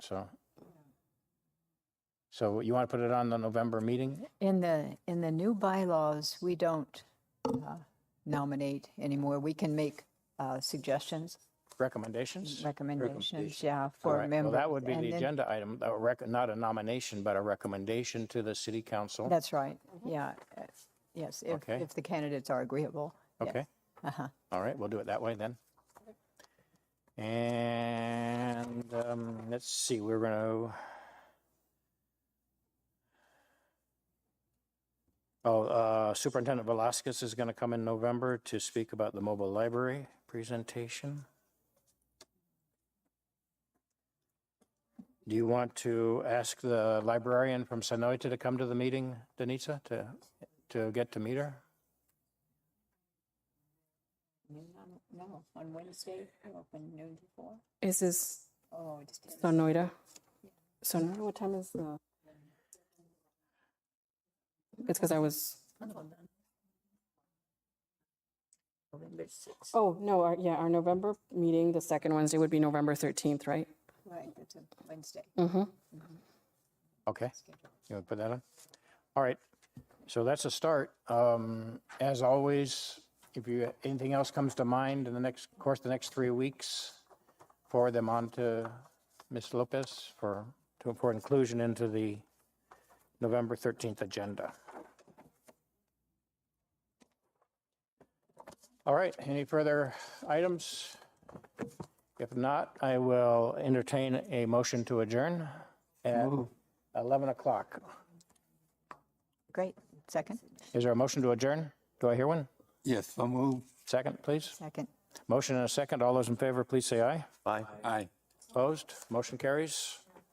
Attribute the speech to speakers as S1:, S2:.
S1: so. So you want to put it on the November meeting?
S2: In the, in the new bylaws, we don't uh, nominate anymore. We can make uh, suggestions,
S1: Recommendations?
S2: recommendations, yeah,
S1: All
S2: for
S1: right, well,
S2: members.
S1: that would be
S2: And
S1: the
S2: then-
S1: agenda item, a rec- not a nomination, but a recommendation to the city council.
S2: That's right, yeah. uh, Yes, if,
S1: Okay.
S2: if the candidates are agreeable. yeah.
S1: Okay?
S2: Uh-huh.
S1: All right, we'll do it that way then. And um, let's see, we're going to. Oh, uh, Superintendent Velasquez is going to come in November to speak about the mobile library presentation. Do you want to ask the librarian from Sanoita to come to the meeting, Denisa, to, to get to meet her?
S2: No, on Wednesday, open noon to four.
S3: Is this
S2: Oh, just.
S3: Sonoida? Sonoida, what time is the? It's because I was,
S2: November sixth,
S3: oh, no, our, yeah, our November meeting, the second Wednesday would be November 13th, right?
S2: right, that's a Wednesday.
S3: Mm-hmm.
S1: Okay. You want to put that on? All right. So that's a start. Um, as always, if you, anything else comes to mind in the next, of course, the next three weeks, forward them on to Ms. Lopez for, to, for inclusion into the November 13th agenda. All right. Any further items? If not, I will entertain a motion to adjourn at 11 o'clock.
S2: Great, second,
S1: Is there a motion to adjourn? Do I hear one?
S4: Yes, so moved.
S1: Second, please.
S2: second.
S1: Motion and a second. All those in favor, please say aye.
S4: Aye. Aye.
S1: Opposed? Motion carries.